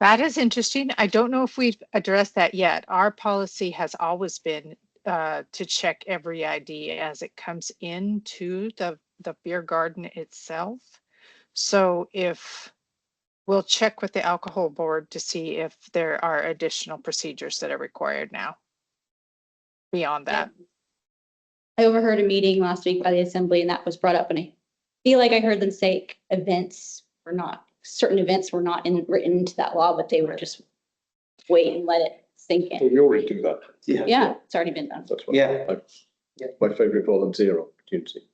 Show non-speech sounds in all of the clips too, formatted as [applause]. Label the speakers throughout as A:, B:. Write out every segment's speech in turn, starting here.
A: That is interesting. I don't know if we've addressed that yet. Our policy has always been uh, to check every ID as it comes into the, the beer garden itself. So if, we'll check with the alcohol board to see if there are additional procedures that are required now. Beyond that,
B: I overheard a meeting last week by the assembly and that was brought up and I feel like I heard them say events were not, certain events were not in, written into that law, but they were just wait and let it sink in.
C: We already do that.
D: Yeah.
B: Yeah, it's already been done.
C: That's what,
D: Yeah.
C: my favourite problem, zero opportunity.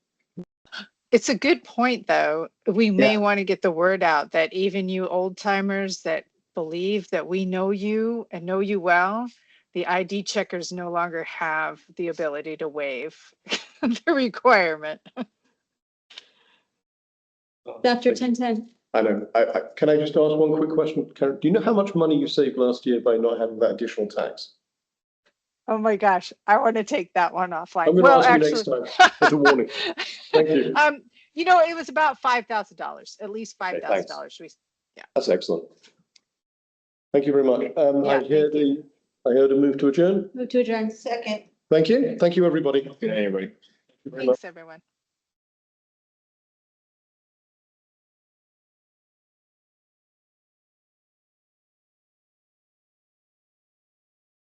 A: it's a good point, though. We may
D: Yeah.
A: want to get the word out that even you old timers that believe that we know you and know you well, the ID checkers no longer have the ability to waive [laughs] the requirement.
B: After ten ten,
C: I know. I, I, can I just ask one quick question? Karen, do you know how much money you saved last year by not having that additional tax?
A: Oh my gosh, I want to take that one offline.
C: I'm gonna
A: Well,
C: ask you next
A: actually,
C: time as a warning. Thank you.
A: [laughs] um, you know, it was about five thousand dollars, at least five thousand dollars. We
C: That's excellent. Thank you very much. Um,
A: Yeah,
C: I hear
A: thank
C: the, I heard a move to adjourn.
B: move to adjourn.
C: Thank you. Thank you, everybody. Good everybody.
A: Thanks, everyone.